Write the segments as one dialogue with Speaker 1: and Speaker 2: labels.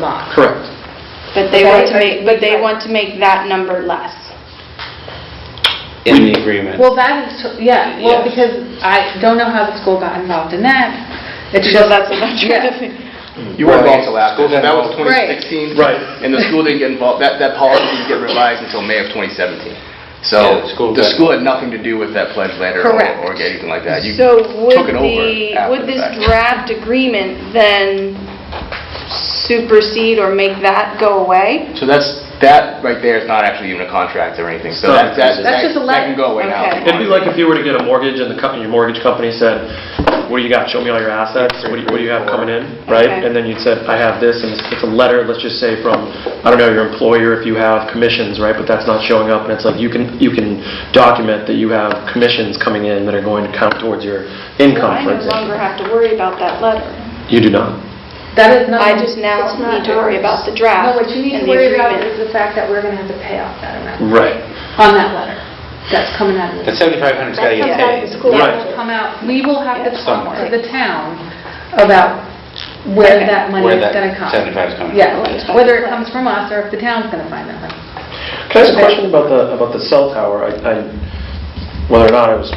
Speaker 1: lot.
Speaker 2: Correct.
Speaker 3: But they want to
Speaker 1: Right,
Speaker 3: make, but they want to make that number less.
Speaker 4: in the agreement.
Speaker 1: Well, that is, yeah, well,
Speaker 4: Yeah.
Speaker 1: because I don't know how the school got involved in that. It's
Speaker 3: So
Speaker 1: just,
Speaker 3: that's what I'm trying to
Speaker 1: Yeah.
Speaker 3: figure.
Speaker 2: You weren't
Speaker 5: Right.
Speaker 2: involved till after,
Speaker 5: School got
Speaker 2: that was
Speaker 5: involved.
Speaker 1: Right.
Speaker 2: 2016.
Speaker 5: Right.
Speaker 2: And the school didn't get involved, that, that policy didn't get revised until May of 2017. So
Speaker 4: Yeah, the school
Speaker 2: the
Speaker 4: got-
Speaker 2: school had nothing to do with that pledge letter or
Speaker 1: Correct.
Speaker 2: or anything like that. You
Speaker 3: So would
Speaker 2: took it over
Speaker 3: the,
Speaker 2: after
Speaker 3: would
Speaker 2: the
Speaker 3: this
Speaker 2: fact.
Speaker 3: draft agreement then supersede or make that go away?
Speaker 2: So that's, that right there is not actually even a contract or anything, so that,
Speaker 1: That's
Speaker 2: that, that
Speaker 1: just a
Speaker 2: that can go away now.
Speaker 3: letter.
Speaker 2: if you
Speaker 5: It'd be
Speaker 2: want.
Speaker 5: like if you were to get a mortgage and the company, your mortgage company said, what do you got, show me all your assets, what do you, what do you have coming in, right?
Speaker 3: Okay.
Speaker 5: And then you'd said, I have this, and it's it's a letter, let's just say from, I don't know, your employer, if you have commissions, right? But that's not showing up, and it's like, you can, you can document that you have commissions coming in that are going to count towards your income,
Speaker 3: I
Speaker 5: for
Speaker 3: no longer
Speaker 5: example.
Speaker 3: have to worry about that letter.
Speaker 5: You do not.
Speaker 1: that is not.
Speaker 3: I just now
Speaker 6: It's not
Speaker 3: need to worry
Speaker 6: ours.
Speaker 3: about the draft
Speaker 6: No,
Speaker 3: and
Speaker 6: what you need
Speaker 3: the
Speaker 6: to worry about
Speaker 3: agreement.
Speaker 6: is the fact that we're going to have to pay off that amount.
Speaker 5: Right.
Speaker 4: Mm.
Speaker 1: On that letter, that's coming out of
Speaker 4: That
Speaker 1: the.
Speaker 4: 7,500's got
Speaker 6: That comes
Speaker 4: to get
Speaker 6: out of
Speaker 4: paid.
Speaker 6: the school
Speaker 5: Right.
Speaker 6: budget.
Speaker 1: Come out, we will have to
Speaker 3: Yeah,
Speaker 1: talk to
Speaker 4: somewhere.
Speaker 1: the town about where
Speaker 3: Okay.
Speaker 1: that money
Speaker 4: Where
Speaker 1: is
Speaker 4: that
Speaker 1: gonna come.
Speaker 4: 75 is coming.
Speaker 1: Yeah,
Speaker 3: Okay.
Speaker 1: whether it comes from us or if the town's gonna find that money.
Speaker 5: Can I ask a question about the, about the cell tower? I, I- whether or not I was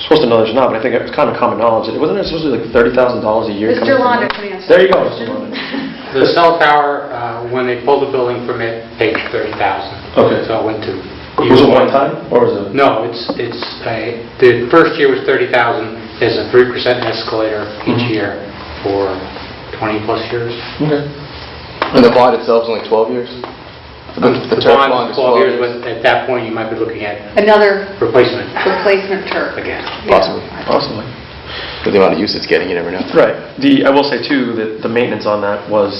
Speaker 5: supposed to know this or not, but I think it's kind of common knowledge. that- Wasn't it supposed to be like $30,000 a year? coming
Speaker 1: Mr.
Speaker 5: from
Speaker 1: Londa
Speaker 5: that?
Speaker 1: can answer.
Speaker 5: There you
Speaker 1: that
Speaker 5: go, Mr.
Speaker 1: question.
Speaker 5: Londa.
Speaker 7: The cell tower, uh, when they pulled the building permit, paid 30000
Speaker 5: Okay.
Speaker 7: So it went to...
Speaker 5: Was it one time, or was it?
Speaker 7: No, it's, it's, a- the first year was 30000 There's a 3% escalator each
Speaker 5: Mhm.
Speaker 7: year for 20-plus years.
Speaker 5: Okay.
Speaker 2: And the bond itself is only 12 years?
Speaker 7: The
Speaker 2: term
Speaker 7: bond is 12 years, but at that point, you might be looking at
Speaker 1: Another
Speaker 7: replacement
Speaker 1: replacement turf.
Speaker 7: again.
Speaker 1: Yeah.
Speaker 2: Possibly,
Speaker 5: Possibly.
Speaker 2: with the amount of use it's getting, you never know.
Speaker 5: Right. The, I will say too, that the maintenance on that was,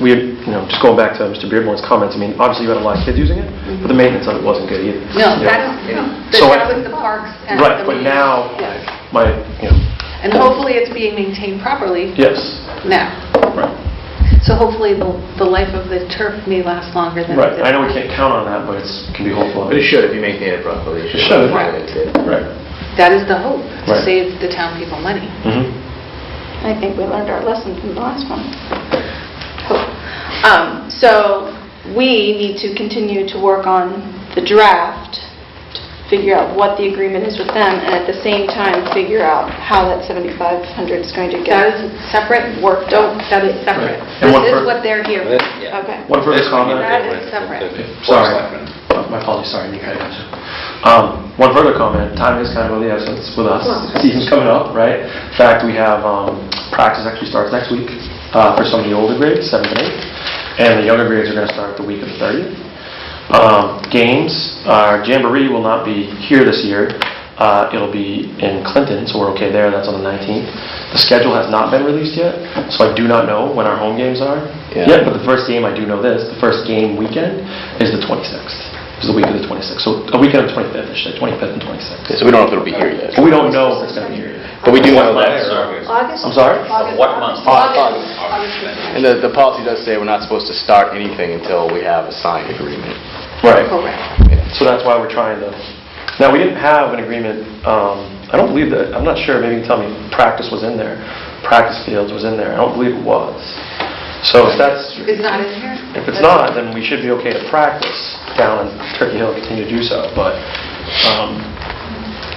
Speaker 5: we, had you know, just going back to Mr. Beardmore's comments, I mean, obviously you had a lot of kids using it, but the maintenance on it wasn't good either.
Speaker 1: No,
Speaker 5: You know?
Speaker 1: that is,
Speaker 5: So I-
Speaker 1: that was the parks and the.
Speaker 5: Right, but
Speaker 1: meetings.
Speaker 5: now,
Speaker 1: Yes.
Speaker 5: my, you know,
Speaker 1: And hopefully it's being maintained properly
Speaker 5: yes,
Speaker 1: now.
Speaker 5: right.
Speaker 1: So hopefully the, the life of the turf may last longer than. it
Speaker 5: Right,
Speaker 1: did.
Speaker 5: I know we can't count on that, but it's, can be hopeful.
Speaker 2: But it should, if you maintain it properly.
Speaker 5: It should.
Speaker 2: Right.
Speaker 5: Right.
Speaker 1: That is the hope, to
Speaker 5: Right.
Speaker 1: save the town people money.
Speaker 5: Mm-hmm.
Speaker 3: I think we learned our lesson from the last one. Um, So we need to continue to work on the draft, to figure out what the agreement is with them, and at the same time, figure out how that 7,500 is going
Speaker 1: That
Speaker 3: to get.
Speaker 1: is separate work, don't, that is separate.
Speaker 5: Right. And
Speaker 1: This
Speaker 5: one
Speaker 1: is
Speaker 5: per-
Speaker 1: what they're here for.
Speaker 4: Yeah.
Speaker 3: Okay.
Speaker 5: One further
Speaker 4: This one you
Speaker 5: comment?
Speaker 1: That
Speaker 4: deal
Speaker 1: is
Speaker 4: with the-
Speaker 1: separate.
Speaker 4: the- the
Speaker 5: Sorry.
Speaker 4: selectmen.
Speaker 5: Uh, My apologies, sorry, you kind of mentioned. Um, One further comment, time is kind of of the essence with us. Season's coming up, right? In fact, we have, um, practice actually starts next week uh, for some of the older grades, seventh and eighth, and the younger grades are going to start the week of the 30th. Um, Games, our Jamboree will not be here this year. Uh, It'll be in Clinton, so we're okay there, that's on the 19th. The schedule has not been released yet, so I do not know when our home games are.
Speaker 2: Yeah.
Speaker 5: Yet, but the first game, I do know this, the first game weekend is the 26th, is the week of the 26th. So a weekend of 25th, I should say, 25th and
Speaker 2: So
Speaker 5: 26th.
Speaker 2: we don't know if it'll be here yet.
Speaker 5: But we don't know if it's going to be here. yet.
Speaker 2: But we do know
Speaker 4: That
Speaker 2: that.
Speaker 4: is August.
Speaker 6: August?
Speaker 5: I'm sorry?
Speaker 6: August,
Speaker 4: What
Speaker 6: August,
Speaker 4: month?
Speaker 6: August.
Speaker 2: And the, the policy does say we're not supposed to start anything until we have a signed agreement.
Speaker 5: Right.
Speaker 1: Correct.
Speaker 5: So that's why we're trying to, now, we didn't have an agreement, um, I don't believe that, I'm not sure, maybe you can tell me, practice was in there, practice fields was in there, I don't believe it was. So if that's,
Speaker 1: It's not in here?
Speaker 5: if it's not, then we should be okay to practice down in Turkey Hill, and continue to do so, but, um,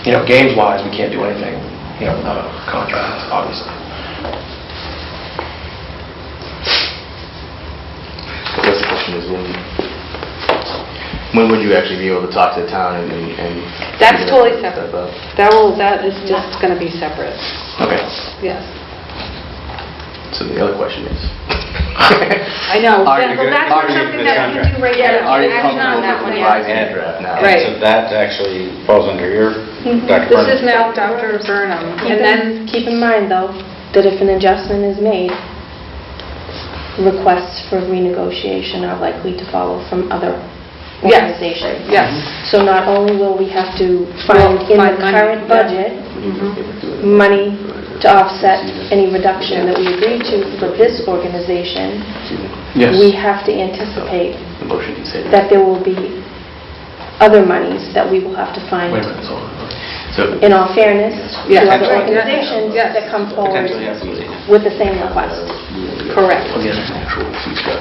Speaker 5: you know, games-wise, we can't do anything, you know, without a contract, obviously.
Speaker 2: I guess the question is, when, when would you actually be able to talk to the town and, and- and...
Speaker 1: That's totally
Speaker 2: Stuff
Speaker 1: separate.
Speaker 2: up?
Speaker 1: That will, that is just going to be separate,
Speaker 2: Okay,
Speaker 1: yes.
Speaker 2: so the other question is...
Speaker 1: I know,
Speaker 2: Are
Speaker 1: that-
Speaker 2: you
Speaker 1: well,
Speaker 2: good-
Speaker 1: that's
Speaker 2: are
Speaker 1: not something
Speaker 2: you good
Speaker 1: that we can do right
Speaker 2: Yeah,
Speaker 1: now.
Speaker 2: Are you
Speaker 1: Action on that
Speaker 2: comfortable with
Speaker 1: one yet.
Speaker 2: revising the draft now?
Speaker 1: Right. Mm-hmm.
Speaker 4: So that actually falls under your, Dr.
Speaker 1: This is
Speaker 4: Brennan.
Speaker 1: now Dr. Burnham, and then,
Speaker 6: Keep in mind, though, that if an adjustment is made, requests for renegotiation are likely to follow from other
Speaker 1: Yes.
Speaker 6: organizations.
Speaker 1: yes.
Speaker 6: So not only will we have to
Speaker 1: Find-
Speaker 6: find in the
Speaker 1: find money,
Speaker 6: current
Speaker 1: yeah.
Speaker 6: budget money to offset any reduction that we agreed to for this organization, we have to anticipate
Speaker 2: The motion you said.
Speaker 6: that there will be other monies that we will have to find,
Speaker 5: Wait a minute, hold on.
Speaker 2: So,
Speaker 6: in all fairness, to
Speaker 1: Yeah.
Speaker 6: other
Speaker 1: Right, yeah.
Speaker 6: organizations
Speaker 1: Yes.
Speaker 6: that come forward
Speaker 4: Potentially have somebody.
Speaker 6: with the same request.
Speaker 1: Correct.
Speaker 2: again, actual future.